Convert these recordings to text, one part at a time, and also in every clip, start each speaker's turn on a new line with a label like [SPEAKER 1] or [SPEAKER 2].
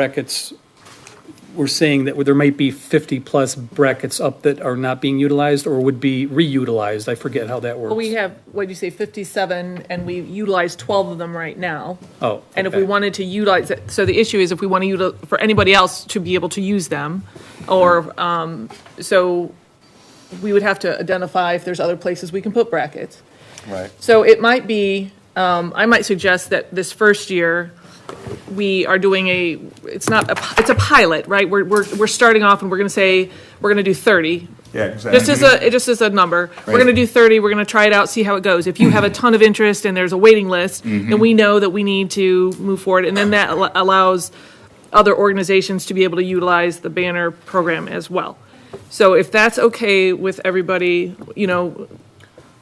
[SPEAKER 1] brackets, we're saying that there might be 50-plus brackets up that are not being utilized or would be reutilized. I forget how that works.
[SPEAKER 2] We have, what do you say, 57, and we utilize 12 of them right now.
[SPEAKER 1] Oh,
[SPEAKER 2] And if we
[SPEAKER 1] okay.
[SPEAKER 2] wanted to utilize, it, so the issue is if we want to utilize, for anybody else to be able to use them, or, um, so we would have to identify if there's other places we can put brackets.
[SPEAKER 3] Right.
[SPEAKER 2] So it might be, um, I might suggest that this first year, we are doing a, it's not, a pi- it's a pilot, right? We're, we're, we're starting off and we're going to say, we're going to do 30.
[SPEAKER 3] Yeah, exactly.
[SPEAKER 2] Just as a, it just as a number. We're
[SPEAKER 3] Right.
[SPEAKER 2] going to do 30, we're going to try it out, see how it goes. If you have a ton of interest and there's a waiting list,
[SPEAKER 1] Mm-hmm.
[SPEAKER 2] then we know that we need to move forward. And then that al- allows other organizations to be able to utilize the banner program as well. So if that's okay with everybody, you know,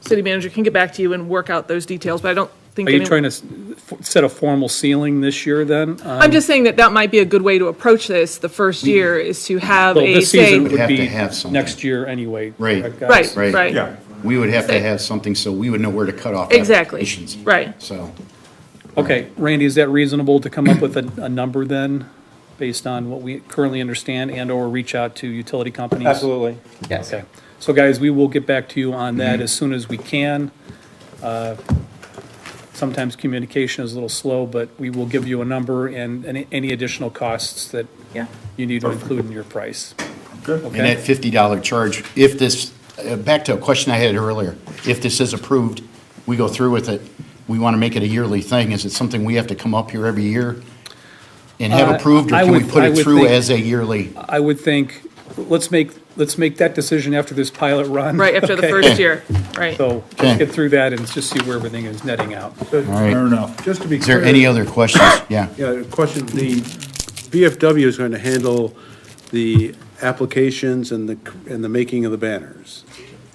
[SPEAKER 2] city manager can get back to you and work out those details, but I don't think.
[SPEAKER 1] Are you
[SPEAKER 2] anyone-
[SPEAKER 1] trying to s- f- set a formal ceiling this year then? Uh,
[SPEAKER 2] I'm just saying that that might be a good way to approach this the first year is to have
[SPEAKER 1] Mm-hmm. Well,
[SPEAKER 2] a
[SPEAKER 1] this
[SPEAKER 2] say.
[SPEAKER 1] season would
[SPEAKER 4] have to
[SPEAKER 1] be
[SPEAKER 4] have something.
[SPEAKER 1] next year anyway.
[SPEAKER 4] Right.
[SPEAKER 1] correct, guys?
[SPEAKER 2] Right,
[SPEAKER 4] Right.
[SPEAKER 2] right,
[SPEAKER 3] Yeah.
[SPEAKER 4] We would have to have something so we would know where to cut off
[SPEAKER 2] exactly,
[SPEAKER 4] applications.
[SPEAKER 2] right.
[SPEAKER 4] So,
[SPEAKER 1] Okay, Randy, is that reasonable to come up with a, a number then, based on what we currently understand and/or reach out to utility companies?
[SPEAKER 3] Absolutely.
[SPEAKER 2] Yes.
[SPEAKER 1] Okay, so guys, we will get back to you on that as soon as we can. Uh, Sometimes communication is a little slow, but we will give you a number and any- any additional costs that
[SPEAKER 2] Yeah.
[SPEAKER 1] you need to include in your price.
[SPEAKER 3] Good.
[SPEAKER 4] and that
[SPEAKER 1] Okay,
[SPEAKER 4] fifty dollar charge, if this, uh, back to a question I had earlier, if this is approved, we go through with it, we want to make it a yearly thing, is it something we have to come up here every year and have
[SPEAKER 1] Uh,
[SPEAKER 4] approved, or
[SPEAKER 1] I
[SPEAKER 4] can we
[SPEAKER 1] would-
[SPEAKER 4] put
[SPEAKER 1] I
[SPEAKER 4] it
[SPEAKER 1] would
[SPEAKER 4] through
[SPEAKER 1] think-
[SPEAKER 4] as a yearly?
[SPEAKER 1] I would think, let's make, let's make that decision after this pilot run.
[SPEAKER 2] Right, after the
[SPEAKER 1] okay?
[SPEAKER 2] first year, right.
[SPEAKER 1] So
[SPEAKER 4] Okay.
[SPEAKER 1] let's get through that and just see where everything is netting out.
[SPEAKER 4] right.
[SPEAKER 3] Fair enough.
[SPEAKER 5] Just to be
[SPEAKER 4] Is
[SPEAKER 5] clear.
[SPEAKER 4] there any other questions? Yeah,
[SPEAKER 5] Yeah, the question, the BFW is going to handle the applications and the, and the making of the banners.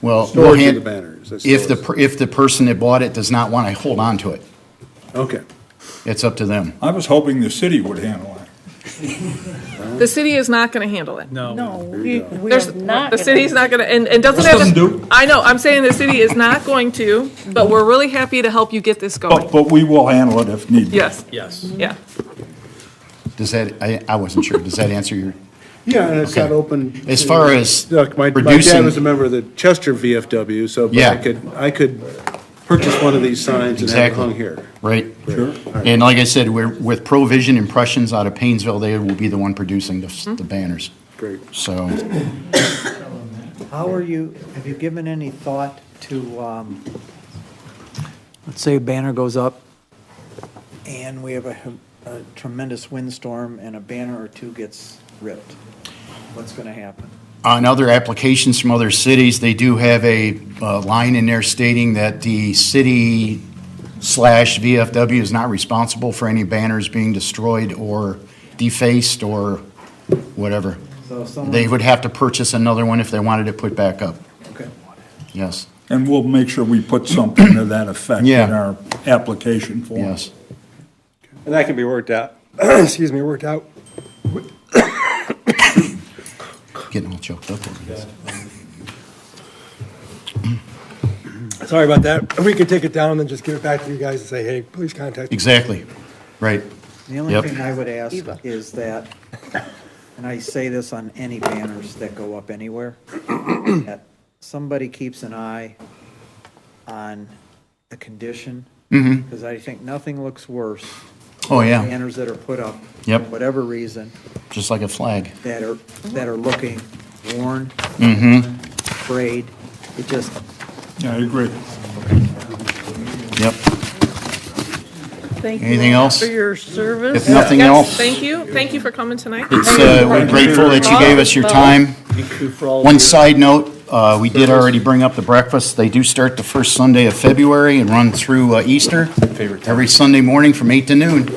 [SPEAKER 4] well, we'll
[SPEAKER 5] Storage of
[SPEAKER 4] hand-
[SPEAKER 5] the banners. I
[SPEAKER 4] if the,
[SPEAKER 5] suppose.
[SPEAKER 4] per- if the person that bought it does not want to hold on to it,
[SPEAKER 5] Okay.
[SPEAKER 4] it's up to them.
[SPEAKER 3] I was hoping the city would handle it.
[SPEAKER 2] The city is not going to handle it.
[SPEAKER 6] No, we, we
[SPEAKER 2] There's,
[SPEAKER 6] are not.
[SPEAKER 2] the
[SPEAKER 6] gonna-
[SPEAKER 2] city's not going to, and, and doesn't have.
[SPEAKER 3] Some
[SPEAKER 2] to-
[SPEAKER 3] do.
[SPEAKER 2] I know, I'm saying the city is not going to, but we're really happy to help you get this
[SPEAKER 3] But,
[SPEAKER 2] going.
[SPEAKER 3] but we will handle it if need be.
[SPEAKER 2] Oh. Yes,
[SPEAKER 1] Yes.
[SPEAKER 2] yeah.
[SPEAKER 4] Does that, I, I wasn't sure, does that answer your,
[SPEAKER 5] Yeah, and it's
[SPEAKER 4] Okay.
[SPEAKER 5] not open.
[SPEAKER 4] As far as
[SPEAKER 5] Look, my, my dad
[SPEAKER 4] reducing-
[SPEAKER 5] was a member of the Chester VFW, so but I
[SPEAKER 4] Yeah.
[SPEAKER 5] could, I could purchase one of these signs and have it
[SPEAKER 4] Exactly.
[SPEAKER 5] hung here.
[SPEAKER 4] right?
[SPEAKER 3] Sure.
[SPEAKER 4] And like I said, we're, with Provision Impressions out of Paynesville, they will be the one producing the, the banners.
[SPEAKER 5] Great.
[SPEAKER 4] So,
[SPEAKER 7] How are you, have you given any thought to, um, let's say a banner goes up and we have a a tremendous windstorm and a banner or two gets ripped? What's going to happen?
[SPEAKER 4] on other applications from other cities, they do have a, uh, line in there stating that the city slash VFW is not responsible for any banners being destroyed or defaced or whatever.
[SPEAKER 7] So if someone.
[SPEAKER 4] They would have to purchase another one if they wanted it put back up,
[SPEAKER 7] Okay.
[SPEAKER 4] yes,
[SPEAKER 3] And we'll make sure we put something to that effect in
[SPEAKER 4] Yeah.
[SPEAKER 3] our application form.
[SPEAKER 4] yes.
[SPEAKER 8] And that can be worked out, excuse me, worked out.
[SPEAKER 4] Getting all choked up over this.
[SPEAKER 8] Sorry about that. We could take it down and then just give it back to you guys and say, hey, please contact. me."
[SPEAKER 4] Exactly, right.
[SPEAKER 7] The only
[SPEAKER 4] Yep.
[SPEAKER 7] thing I would ask is that, and I say this on any banners that go up anywhere, that somebody keeps an eye on the condition.
[SPEAKER 4] Mm-hmm.
[SPEAKER 7] Because I think nothing looks worse.
[SPEAKER 4] Oh,
[SPEAKER 7] than
[SPEAKER 4] yeah,
[SPEAKER 7] Banners that are put up.
[SPEAKER 4] Yep.
[SPEAKER 7] For whatever reason,
[SPEAKER 4] just like a flag.
[SPEAKER 7] that are, that are looking worn,
[SPEAKER 4] Mm-hmm.
[SPEAKER 7] frayed. It just,
[SPEAKER 3] Yeah, I agree.
[SPEAKER 4] Yep.
[SPEAKER 6] Thank you
[SPEAKER 4] Anything else?
[SPEAKER 6] For your service.
[SPEAKER 4] If nothing
[SPEAKER 2] Yes,
[SPEAKER 4] else,
[SPEAKER 2] Thank you, thank you for coming tonight.
[SPEAKER 4] it's, uh, we're grateful that you gave us your time. One side note, uh, we did already bring up the breakfast. They do start the first Sunday of February and run through uh, Easter. Every Sunday morning from eight to noon.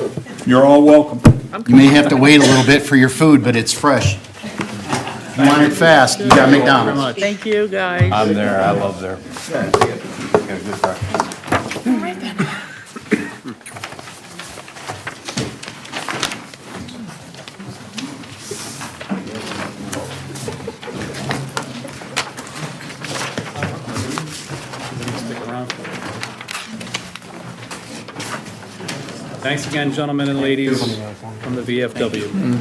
[SPEAKER 3] You're all welcome.
[SPEAKER 4] You may have to wait a little bit for your food, but it's fresh. If you want it fast, you got McDonald's.
[SPEAKER 6] Thank you, guys.
[SPEAKER 9] I'm there, I love there. Got a good breakfast.
[SPEAKER 1] Stick around. Thanks again, gentlemen and ladies. from the VFW.